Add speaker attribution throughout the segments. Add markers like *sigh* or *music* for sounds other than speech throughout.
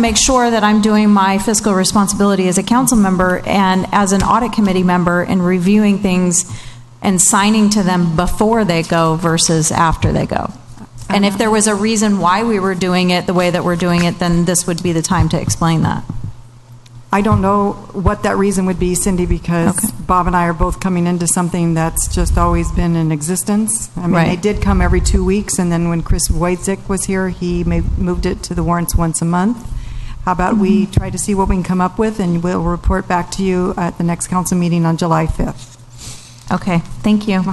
Speaker 1: make sure that I'm doing my fiscal responsibility as a council member and as an audit committee member and reviewing things and signing to them before they go versus after they go. And if there was a reason why we were doing it the way that we're doing it, then this would be the time to explain that.
Speaker 2: I don't know what that reason would be, Cindy, because
Speaker 1: Okay.
Speaker 2: Bob and I are both coming into something that's just always been in existence. I mean, they
Speaker 1: Right.
Speaker 2: did come every two weeks, and then when Chris Wojcik was here, he ma- moved it to the warrants once a month. How about we
Speaker 1: Mm-hmm.
Speaker 2: try to see what we can come up with, and we'll report back to you at the next council meeting on July 5th.
Speaker 1: Okay, thank you.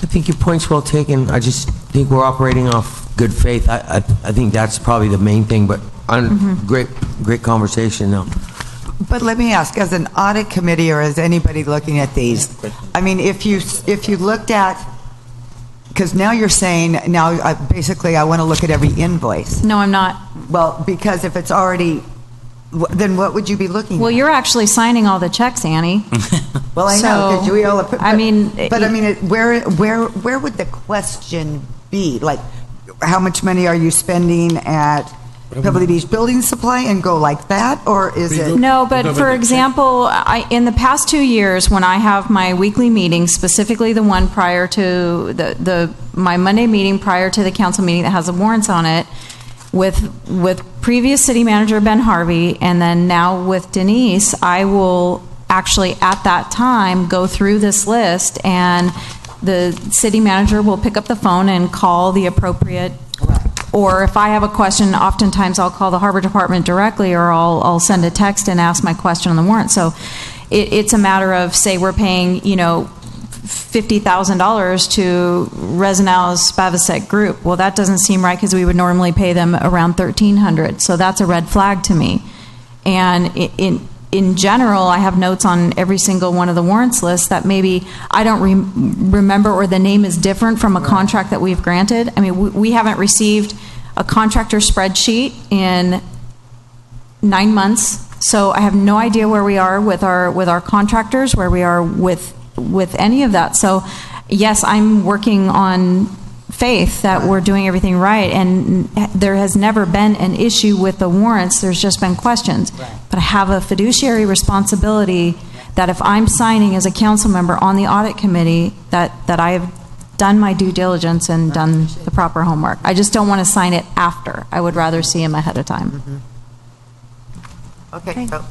Speaker 3: I think your point's well taken. I just think we're operating off good faith. I, I, I think that's probably the main thing, but i great, great conversation though.
Speaker 4: But let me ask, as an audit committee or as anybody looking at these, I mean, if you, if you looked at, because now you're saying, now, I- basically, I want to look at every invoice.
Speaker 1: No, I'm not.
Speaker 4: Well, because if it's already, wh- then what would you be looking at?
Speaker 1: Well, you're actually signing all the checks, Annie.
Speaker 4: *laughs* Well, I know, because
Speaker 1: So,
Speaker 4: we all. but-
Speaker 1: I mean,
Speaker 4: But I mean, it- where, where, where would the question be? Like, how much money are you spending at Pebble Beach Building Supply and go like that? Or is it?
Speaker 1: No, but for example, I, in the past two years, when I have my weekly meeting, specifically the one prior to the, the, my Monday meeting prior to the council meeting that has the warrants on it, with, with previous city manager Ben Harvey, and then now with Denise, I will actually at that time go through this list and the city manager will pick up the phone and call the appropriate or if I have a question, oftentimes I'll call the harbor department directly, or I'll, I'll send a text and ask my question on the warrant. So it, it's a matter of, say, we're paying, you know, $50,000 to Reznow's Spavacek Group. Well, that doesn't seem right, because we would normally pay them around 1,300, so that's a red flag to me. And i- in, in general, I have notes on every single one of the warrants lists that maybe I don't rem- remember or the name is different from a contract that we've granted. I mean, we, we haven't received a contractor spreadsheet in nine months, so I have no idea where we are with our, with our contractors, where we are with, with any of that. So, yes, I'm working on faith that we're doing everything right, and there has never been an issue with the warrants, there's just been questions. But I have a fiduciary responsibility that if I'm signing as a council member on the audit committee, that, that I have done my due diligence and done the proper homework. I just don't want to sign it after. I would rather see him ahead of time.
Speaker 4: Okay, so.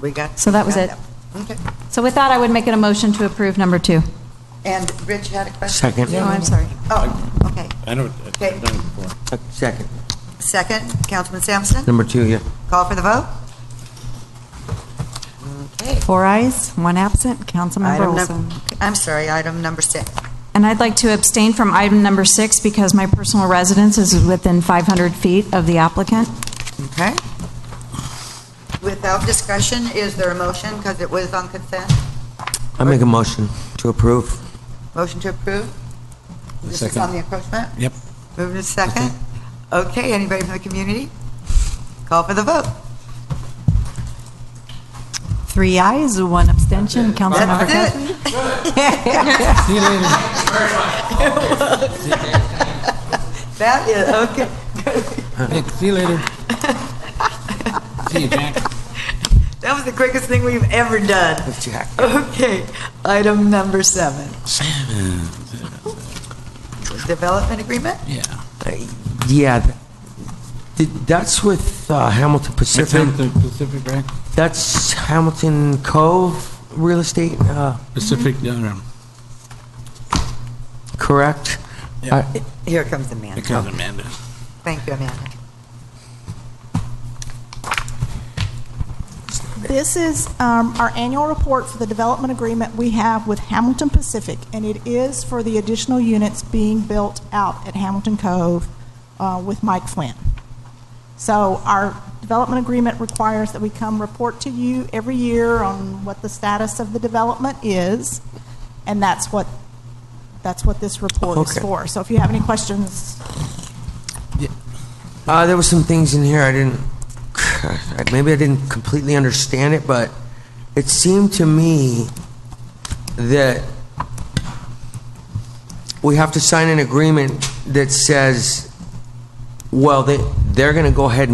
Speaker 4: We got.
Speaker 1: So that was it.
Speaker 4: Okay.
Speaker 1: So with that, I would make it a motion to approve number two.
Speaker 4: And Rich had a question?
Speaker 3: Second.
Speaker 4: No, I'm sorry. Oh, okay.
Speaker 5: I know,
Speaker 4: Okay.
Speaker 5: I've done it before.
Speaker 3: Second.
Speaker 4: Second, Councilman Sampson,
Speaker 3: Number two, yeah.
Speaker 4: call for the vote. Okay.
Speaker 2: Four ayes, one absent, Councilmember
Speaker 4: Item num-
Speaker 2: Olson.
Speaker 4: I'm sorry, item number six.
Speaker 1: And I'd like to abstain from item number six because my personal residence is within 500 feet of the applicant.
Speaker 4: Okay. Without discussion, is there a motion, because it was on consent?
Speaker 3: I make a motion to approve.
Speaker 4: Motion to approve? This is
Speaker 5: Second.
Speaker 4: on the encroachment?
Speaker 5: Yep.
Speaker 4: Moving to second. Okay, anybody from the community? Call for the vote.
Speaker 2: Three ayes, one abstention, Councilmember Cassidy.
Speaker 4: That's it. *laughs* That is, okay.
Speaker 5: Nick, see you later. See you, Jack.
Speaker 4: That was the quickest thing we've ever done.
Speaker 3: Jack.
Speaker 4: Okay, item number seven. Development agreement?
Speaker 5: Yeah.
Speaker 3: Uh, Yeah. th- th- That's with uh, Hamilton
Speaker 5: That's
Speaker 3: Pacific.
Speaker 5: Hamilton Pacific, right?
Speaker 3: That's Hamilton Cove Real Estate, uh,
Speaker 5: Pacific, no, no.
Speaker 3: correct?
Speaker 5: Yeah.
Speaker 3: Uh,
Speaker 4: Here comes Amanda.
Speaker 5: It comes Amanda.
Speaker 4: Thank you, Amanda.
Speaker 6: This is um, our annual report for the development agreement we have with Hamilton Pacific, and it is for the additional units being built out at Hamilton Cove uh, with Mike Flynn. So our development agreement requires that we come report to you every year on what the status of the development is, and that's what, that's what this report is
Speaker 3: Okay.
Speaker 6: for. So if you have any questions,
Speaker 3: Uh, there were some things in here I didn't, maybe I didn't completely understand it, but it seemed to me that we have to sign an agreement that says, well, they, they're going to go ahead and